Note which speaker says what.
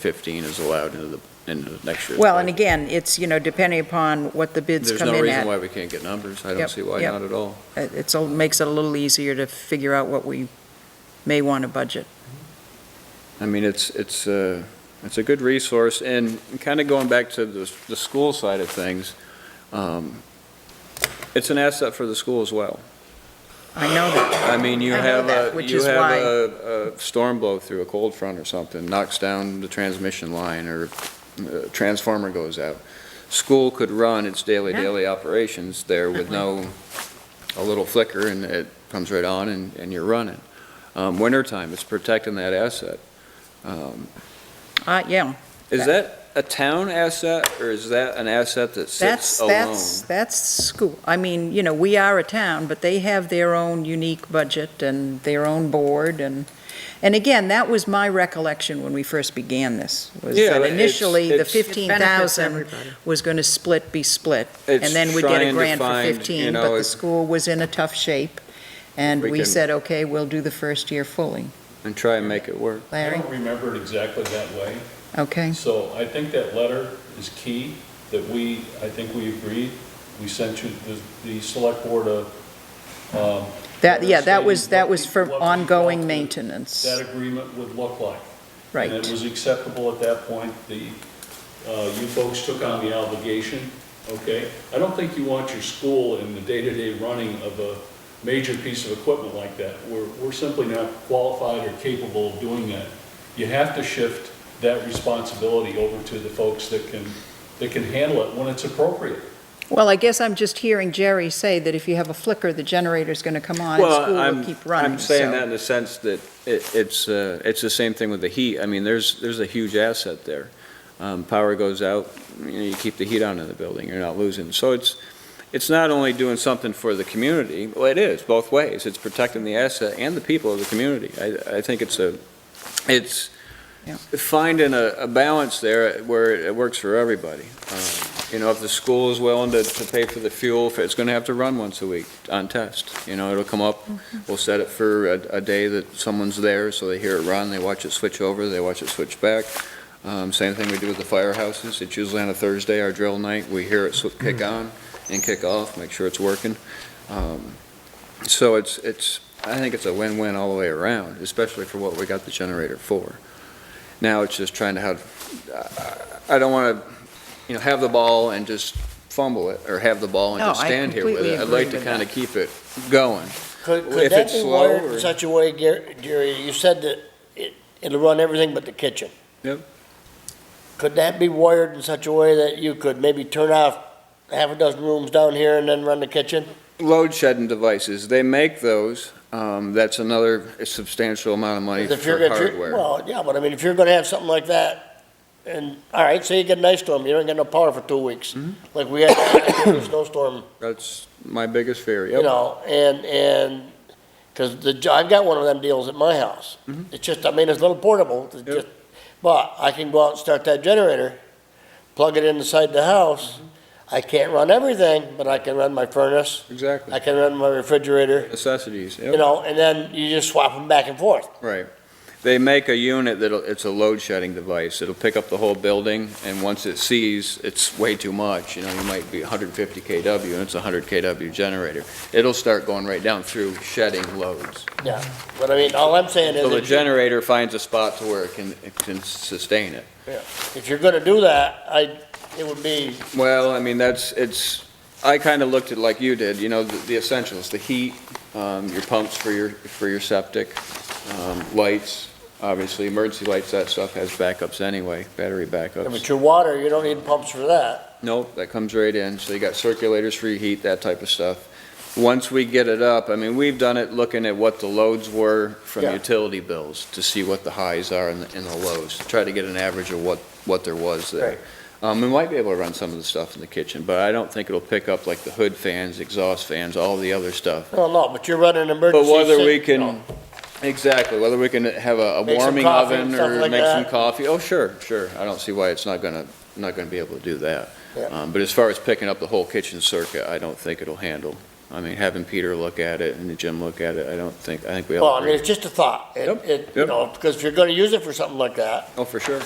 Speaker 1: 15 is allowed into the, into the next year's.
Speaker 2: Well, and
Speaker 1: budget.
Speaker 2: again, it's, you know, depending upon what the bids come
Speaker 1: There's no
Speaker 2: in
Speaker 1: reason
Speaker 2: at.
Speaker 1: why we can't get numbers. I don't
Speaker 2: Yep,
Speaker 1: see why
Speaker 2: yep.
Speaker 1: not at all.
Speaker 2: It it's a- makes it a little easier to figure out what we may want to budget.
Speaker 1: I mean, it's, it's, uh, it's a good resource, and kind of going back to the, the school side of things, um, it's an asset for the school as well.
Speaker 2: I know that,
Speaker 1: I mean, you
Speaker 2: I know
Speaker 1: have
Speaker 2: that,
Speaker 1: a,
Speaker 2: which
Speaker 1: you
Speaker 2: is
Speaker 1: have
Speaker 2: why-
Speaker 1: a, a storm blow through, a cold front or something, knocks down the transmission line, or uh, transformer goes out. School could run its daily,
Speaker 2: Yeah.
Speaker 1: daily operations there with no, a little flicker, and it comes right on, and, and you're running. Um, wintertime, it's protecting that asset. Um,
Speaker 2: Uh, yeah.
Speaker 1: Is that a town asset, or is that an asset that
Speaker 2: That's,
Speaker 1: sits alone?
Speaker 2: that's, that's school. I mean, you know, we are a town, but they have their own unique budget and their own board and, and again, that was my recollection when we first began this, was
Speaker 1: Yeah,
Speaker 2: that
Speaker 1: it's-
Speaker 2: initially, the
Speaker 1: it's- It benefits
Speaker 2: fifteen thousand was going to split, be split. And then we
Speaker 1: get
Speaker 2: did a grant for 15, but the school was in a tough shape, and
Speaker 1: We
Speaker 2: we
Speaker 1: can-
Speaker 2: said, okay, we'll do the first year fully.
Speaker 1: And try and make it work.
Speaker 3: I
Speaker 2: Larry,
Speaker 3: don't remember it exactly that way,
Speaker 2: okay?
Speaker 3: so I think that letter is key, that we, I think we agreed, we sent you, the, the select board a, um,
Speaker 2: That, yeah, that was,
Speaker 3: Understanding
Speaker 2: that
Speaker 3: what
Speaker 2: was
Speaker 3: we-
Speaker 2: for
Speaker 3: what we want
Speaker 2: ongoing
Speaker 3: to- that
Speaker 2: maintenance,
Speaker 3: agreement would look like. And it
Speaker 2: right.
Speaker 3: was acceptable at that point, the, uh, you folks took on the obligation, okay? I don't think you want your school in the day-to-day running of a major piece of equipment like that. We're, we're simply not qualified or capable of doing that. You have to shift that responsibility over to the folks that can, that can handle it when it's appropriate.
Speaker 2: Well, I guess I'm just hearing Jerry say that if you have a flicker, the generator's going to come on and school will keep running.
Speaker 1: I'm saying
Speaker 2: so-
Speaker 1: that in the sense that it, it's, uh, it's the same thing with the heat. I mean, there's, there's a huge asset there. Um, power goes out, you know, you keep the heat on in the building, you're not losing. So it's, it's not only doing something for the community, well, it is, both ways. It's protecting the asset and the people of the community. I, I think it's a, it's
Speaker 2: Yeah.
Speaker 1: finding a, a balance there where it works for everybody. Um, You know, if the school is willing to, to pay for the fuel, if it's gonna have to run once a week on test. You know, it'll come up, We'll set it for a, a day that someone's there, so they hear it run, they watch it switch over, they watch it switch back. Um, same thing we do with the firehouses, it's usually on a Thursday, our drill night, we hear it sw- kick
Speaker 2: Mm-hmm.
Speaker 1: on and kick off, make sure it's working. Um, So it's, it's, I think it's a win-win all the way around, especially for what we got the generator for. Now it's just trying to have, I I don't wanna, you know, have the ball and just fumble it, or have the ball and
Speaker 2: No,
Speaker 1: just
Speaker 2: I
Speaker 1: stand here with
Speaker 2: completely
Speaker 1: it. I'd
Speaker 2: agree
Speaker 1: like to
Speaker 2: with
Speaker 1: kinda
Speaker 2: that.
Speaker 1: keep it going.
Speaker 4: Could,
Speaker 1: If
Speaker 4: could that
Speaker 1: it's
Speaker 4: be
Speaker 1: slow
Speaker 4: worded
Speaker 1: or-
Speaker 4: in such a way, Gar- Gary, you said that it, it'll run everything but the kitchen?
Speaker 1: Yep.
Speaker 4: Could that be wired in such a way that you could maybe turn off half a dozen rooms down here and then run the kitchen?
Speaker 1: load shedding devices, they make those, um, that's another substantial amount of money
Speaker 4: 'Cause
Speaker 1: for
Speaker 4: if you're- if you're-
Speaker 1: hardware.
Speaker 4: Well, yeah, but I mean, if you're gonna have something like that, and, all right, say you get an ice storm, you don't get no power for two weeks,
Speaker 1: Mm-hmm.
Speaker 4: like we had a snowstorm
Speaker 1: That's my biggest fear,
Speaker 4: you
Speaker 1: yep.
Speaker 4: know, and, and, because the, j- I've got one of them deals at my house. It's just, I mean, it's a little portable, it's
Speaker 1: Mm-hmm. Yep.
Speaker 4: just, but I can go out and start that generator, plug it in inside the house.
Speaker 1: Mm-hmm.
Speaker 4: I can't run everything, but I can run my furnace, I
Speaker 1: Exactly.
Speaker 4: can run my refrigerator,
Speaker 1: Necessities,
Speaker 4: you
Speaker 1: yep,
Speaker 4: know, and then you just swap them back and forth.
Speaker 1: right. They make a unit that'll, it's a load shedding device, it'll pick up the whole building, and once it sees it's way too much, you know, you might be 150 KW, and it's a 100 KW generator, it'll start going right down through shedding loads.
Speaker 4: Yeah, but I mean, all I'm saying
Speaker 1: So the
Speaker 4: is, if-
Speaker 1: generator finds a spot to where it can, it can sustain it.
Speaker 4: if you're gonna do that, I, it would be,
Speaker 1: Well, I mean, that's, it's, I kind of looked at like you did, you know, the the essentials, the heat, um, your pumps for your, for your septic, um, lights, obviously, emergency lights, that stuff has backups anyway, battery
Speaker 4: but
Speaker 1: backups.
Speaker 4: your water, you don't need pumps for that.
Speaker 1: Nope, that comes right in, so you got circulators for your heat, that type of stuff. Once we get it up, I mean, we've done it looking at what the loads were from
Speaker 4: Yeah.
Speaker 1: utility bills to see what the highs are and the, and the lows, to try to get an average of what, what there was there.
Speaker 4: Right.
Speaker 1: Um, we might be able to run some of the stuff in the kitchen, but I don't think it'll pick up like the hood fans, exhaust fans, all the other stuff.
Speaker 4: Well, no, but you're running
Speaker 1: But
Speaker 4: emergency.
Speaker 1: whether
Speaker 4: sit-
Speaker 1: we
Speaker 4: no.
Speaker 1: can, exactly, whether we can have a a
Speaker 4: Make some
Speaker 1: warming
Speaker 4: coffee and
Speaker 1: oven
Speaker 4: stuff
Speaker 1: or
Speaker 4: like
Speaker 1: make some
Speaker 4: that.
Speaker 1: coffee, oh, sure, sure. I don't see why it's not gonna, not gonna be able to do that.
Speaker 4: Yeah.
Speaker 1: Um, but as far as picking up the whole kitchen circuit, I don't think it'll handle. I mean, having Peter look at it and Jim look at it, I don't think, I think we all
Speaker 4: Well, I mean,
Speaker 1: agree.
Speaker 4: it's just a thought. It,
Speaker 1: Yep,
Speaker 4: it, you
Speaker 1: yep.
Speaker 4: know, because if you're gonna use it for something like that,
Speaker 1: Oh, for sure.